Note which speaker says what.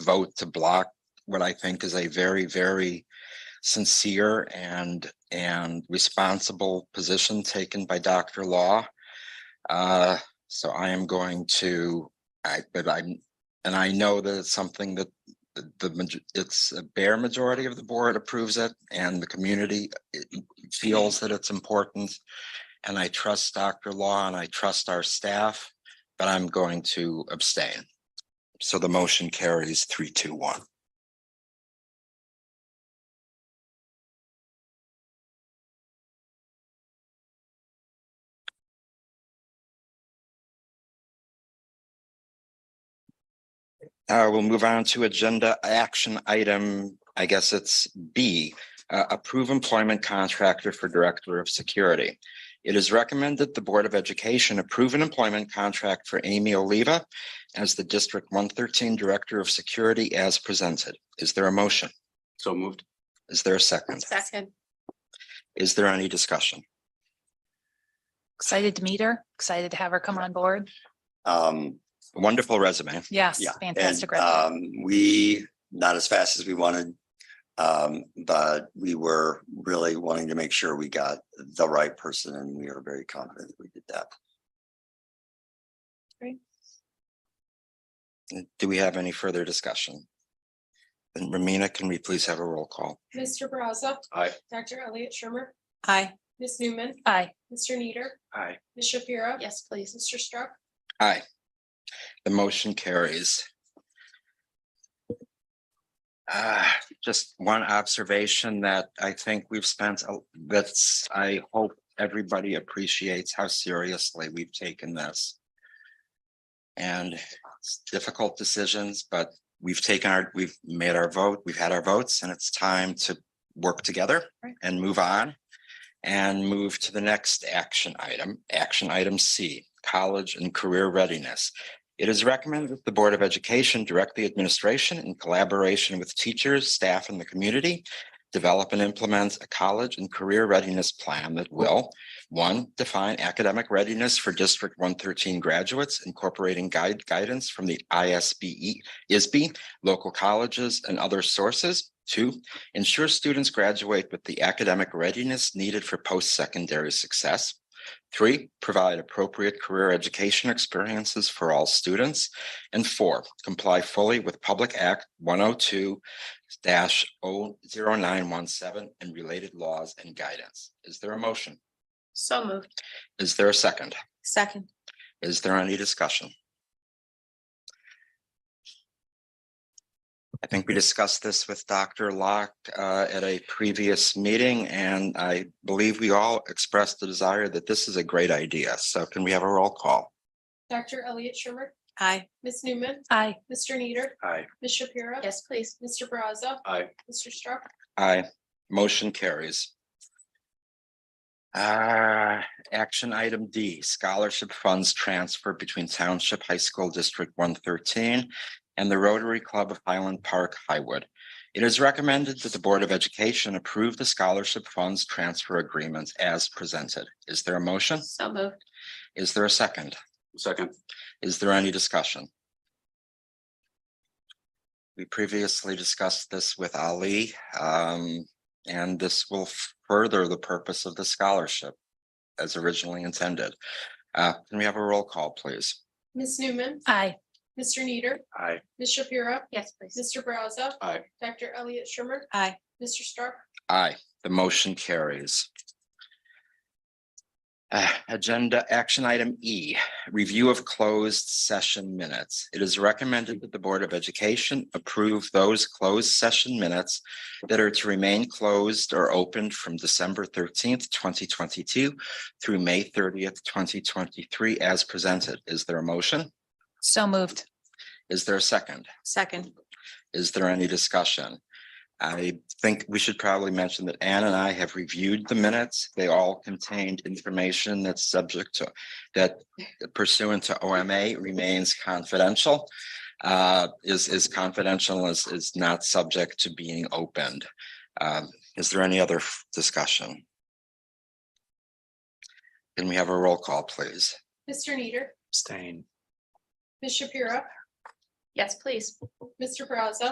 Speaker 1: vote to block what I think is a very, very sincere and, and responsible position taken by Dr. Law. Uh, so I am going to, I, but I'm, and I know that it's something that the- the, maj- it's a bare majority of the board approves it and the community it feels that it's important. And I trust Dr. Law and I trust our staff, but I'm going to abstain. So the motion carries three, two, one. Uh, we'll move on to agenda action item, I guess it's B, uh, approve employment contractor for Director of Security. It is recommended the Board of Education approve an employment contract for Amy Oliva as the District one thirteen Director of Security as presented. Is there a motion?
Speaker 2: So moved.
Speaker 1: Is there a second?
Speaker 3: Second.
Speaker 1: Is there any discussion?
Speaker 4: Excited to meet her, excited to have her come on board.
Speaker 2: Um,
Speaker 1: Wonderful resume.
Speaker 4: Yes,
Speaker 2: yeah. and,
Speaker 4: fantastic. resume.
Speaker 2: Um, we, not as fast as we wanted. Um, but we were really wanting to make sure we got the right person and we are very confident that we did that.
Speaker 1: Do we have any further discussion? And Ramina, can we please have a roll call?
Speaker 5: Mr. Brazza.
Speaker 2: Aye.
Speaker 5: Dr. Elliot Shimer.
Speaker 3: Aye.
Speaker 5: Ms. Newman.
Speaker 4: Aye,
Speaker 5: Mr. Neder.
Speaker 2: Aye.
Speaker 5: Ms. Shapiro.
Speaker 3: Yes, please.
Speaker 5: Mr. Struck.
Speaker 1: Aye. The motion carries. Uh, just one observation that I think we've spent, a- that's, I hope everybody appreciates how seriously we've taken this. And it's difficult decisions, but we've taken our, we've made our vote, we've had our votes, and it's time to work together
Speaker 4: Right.
Speaker 1: and move on. And move to the next action item, action item C, college and career readiness. It is recommended that the Board of Education direct the administration in collaboration with teachers, staff, and the community. Develop and implement a college and career readiness plan that will, one, define academic readiness for District one thirteen graduates, incorporating guide guidance from the ISBE, ISB, local colleges, and other sources. Two, ensure students graduate with the academic readiness needed for post-secondary success. Three, provide appropriate career education experiences for all students. And four, comply fully with Public Act one oh two oh 917 and related laws and guidance. Is there a motion?
Speaker 3: So moved.
Speaker 1: Is there a second?
Speaker 3: Second.
Speaker 1: Is there any discussion? I think we discussed this with Dr. Locke uh, at a previous meeting, and I believe we all expressed the desire that this is a great idea. So can we have a roll call?
Speaker 5: Dr. Elliot Shimer.
Speaker 3: Aye.
Speaker 5: Ms. Newman.
Speaker 4: aye,
Speaker 5: Mr. Neder.
Speaker 2: Aye.
Speaker 5: Ms. Shapiro.
Speaker 3: Yes, please.
Speaker 5: Mr. Brazza.
Speaker 2: Aye.
Speaker 5: Mr. Struck.
Speaker 1: Aye, motion carries. Uh, action item D, scholarship funds transfer between Township High School District one thirteen and the Rotary Club of Highland Park Highwood. It is recommended that the Board of Education approve the scholarship funds transfer agreement as presented. Is there a motion?
Speaker 3: So moved.
Speaker 1: Is there a second?
Speaker 2: Second.
Speaker 1: Is there any discussion? We previously discussed this with Ali, um, and this will further the purpose of the scholarship as originally intended. Uh, can we have a roll call, please?
Speaker 5: Ms. Newman.
Speaker 4: aye,
Speaker 5: Mr. Neder.
Speaker 2: Aye.
Speaker 5: Ms. Shapiro.
Speaker 3: Yes, please.
Speaker 5: Mr. Brazza.
Speaker 2: Aye.
Speaker 5: Dr. Elliot Shimer.
Speaker 3: Aye.
Speaker 5: Mr. Struck.
Speaker 1: Aye, the motion carries. Uh, agenda action item E, review of closed session minutes. It is recommended that the Board of Education approve those closed session minutes that are to remain closed or opened from December thirteenth, twenty twenty-two through May thirtieth, twenty twenty-three as presented. Is there a motion?
Speaker 4: so moved,
Speaker 1: Is there a second?
Speaker 3: Second.
Speaker 1: Is there any discussion? I think we should probably mention that Ann and I have reviewed the minutes. They all contained information that's subject to, that pursuant to OMA remains confidential. Uh, is, is confidential, is, is not subject to being opened. Um, is there any other f- discussion? Can we have a roll call, please?
Speaker 5: Mr. Neder.
Speaker 2: Stain.
Speaker 5: Ms. Shapiro.
Speaker 3: Yes, please.
Speaker 5: Mr. Brazza,